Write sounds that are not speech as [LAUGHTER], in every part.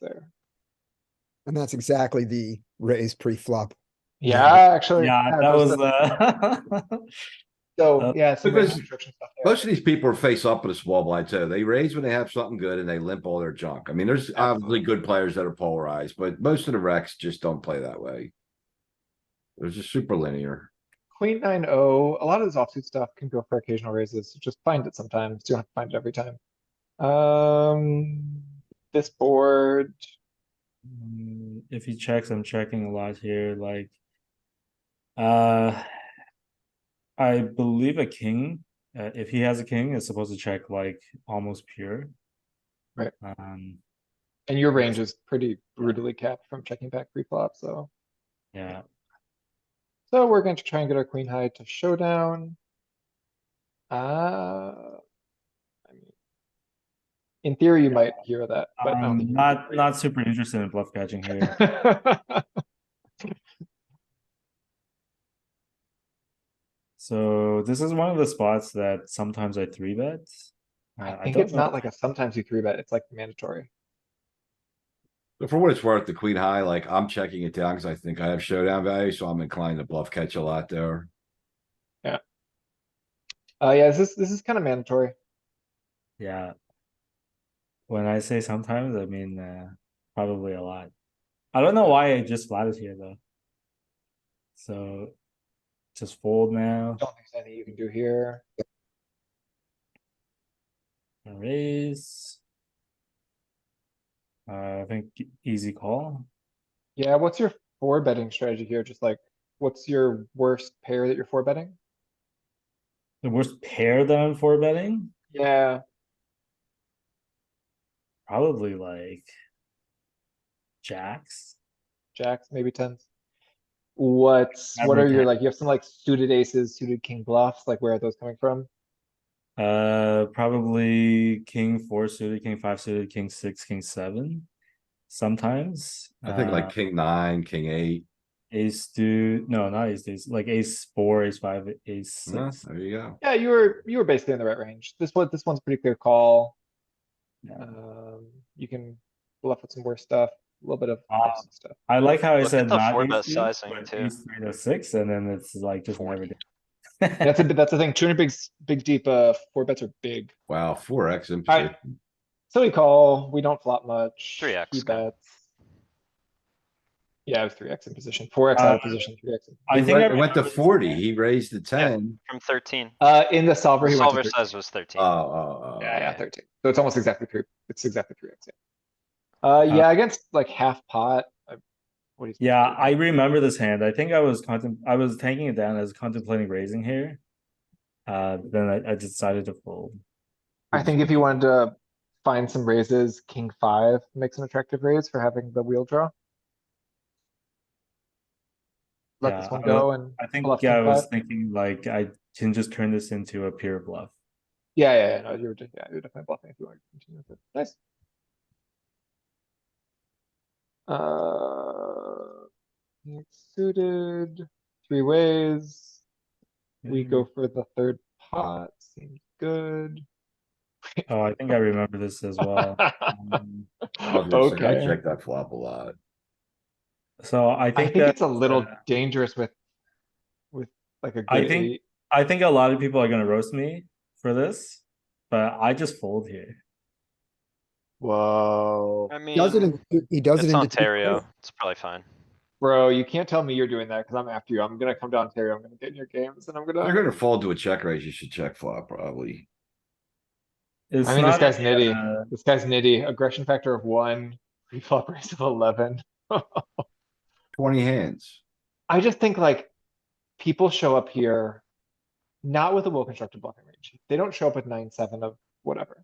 there. And that's exactly the raise pre-flop. [LAUGHS] Yeah, Yeah. actually. Yeah, that those was, are- uh, So, uh, yeah, some good Because- construction stuff there. Most of these people are face up with a small blind too. They raise when they have something good and they limp all their junk. I mean, there's obviously good players that are polarized, but most of the wrecks just don't play that way. It was just super linear. Queen nine O, a lot of this offsuit stuff can go for occasional raises, just find it sometimes, you don't have to find it every time. Um, this board. mm, [LAUGHS] if he checks, I'm checking a lot here, like. Uh. I believe a king, uh, if he has a king, is supposed to check like almost pure. Right. Um, And your range is pretty brutally capped from checking back pre-flop, so. yeah, So we're going to try and get our queen high to showdown. Uh. I mean, In theory, you might hero that, but. I don't think I'm you Um, not, would. not super interested in bluff catching here. [LAUGHS] So this is one of the spots that sometimes I three bet. Uh, I think don't it's know- not like a sometimes you three bet, it's like mandatory. But for what it's worth, the queen high, like I'm checking it down because I think I have showdown value, so I'm inclined to bluff catch a lot there. Uh, yeah, this is, this is kind of mandatory. Yeah. When I say sometimes, I mean uh, probably a lot. I don't know why it just flatters here though. So just fold now, Don't think there's anything you can do here. and raise. Uh, I think e- easy call. Yeah, what's your four betting strategy here? Just like, what's your worst pair that you're four betting? The worst pair that I'm four betting, Yeah, probably like jacks. jacks, maybe tens. What's, what are Average your, hand. like, you have some like suited aces, suited king bluffs, like where are those coming from? Uh, probably king four suited, king five suited, king six, king seven. Sometimes I think uh, like king nine, king eight. Ace two, no, not ace ace, like ace four, ace five, ace Yeah, six. mm, there you go. Yeah, you were, you were basically in the right range. This one, this one's pretty clear call. Yeah. Um, you can bluff with some worse stuff, a little bit of Ah. awesome stuff. I like how I Look at said the not four ace bet two, sizing but too. ace three to six, and then it's like just never did. That's a, that's the thing, two hundred big, s- big deep, uh, four bets are big. Wow, four X in Alright. position. So we call, we don't flop much. 3x, he no. bets. Yeah, I was three X in position, four X out of Uh, position, three X. I He think I went, went to remember this forty. guy. He raised to ten. From thirteen. Uh, in the solver, he went Solver to thirteen. size was Oh, thirteen. Uh, oh, oh. Yeah, yeah, thirteen. So it's almost exactly three, it's exactly three X. Uh, yeah, against like half pot. I- what do you think? Yeah, I remember this hand. I think I was contem, I was tanking it down. I was contemplating raising here. Uh, then I, I decided to fold. I think if you wanted to find some raises, king five makes an attractive raise for having the wheel draw. Let this Yeah, one I was- go and, I think Bluff yeah, I king was five. thinking like I can just turn this into a pure bluff. yeah, yeah, yeah, no, you're, de- yeah, you're definitely bluffing if you want to continue with it. Nice. Uh, it's suited, three ways. We go for the third pot, seems good. Oh, I think I remember this as [LAUGHS] well. Um, I was gonna say, I Okay. checked that flop a lot. So I I think think that it's a little uh, dangerous with, with like a I good think- eight. I think a lot of people are gonna roast me for this, but I just fold here. Whoa, I mean, Does it in, he does it it's in. the Mm. Ontario. It's probably fine. bro, you can't tell me you're doing that because I'm after you. I'm gonna come to Ontario. I'm gonna get in your games and I'm If gonna. You're gonna fold to a check raise. You should check flop probably. It's I mean, this not guy's a, nitty. uh, This guy's nitty. Aggression factor of one, pre-flop raise of eleven. Twenty hands. I just think like people show up here not with a well constructed bluffing range. They don't show up with nine, seven of whatever.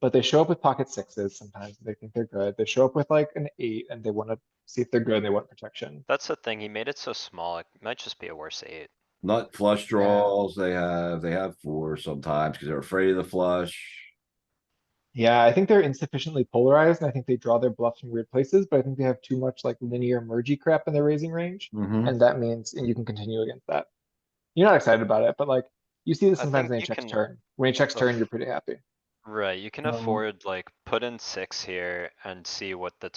But they show up with pocket sixes sometimes. and They think they're good. They show up with like an eight and they want to see if they're good and they want protection. That's the thing. He made it so small. It might just be a worse eight. Nut flush draws, they have, they have four sometimes because they're afraid of the flush. Yeah, I think they're insufficiently polarized and I think they draw their bluffs in weird places, but I think they have too much like linear mergey crap in their raising range. Mhm. And that means, and you can continue against that. You're not excited about it, but like you see this I sometimes think when he you checks can- turn. When he checks Ugh. turn, you're pretty happy. Right, you can Um, afford like put in six here and see what the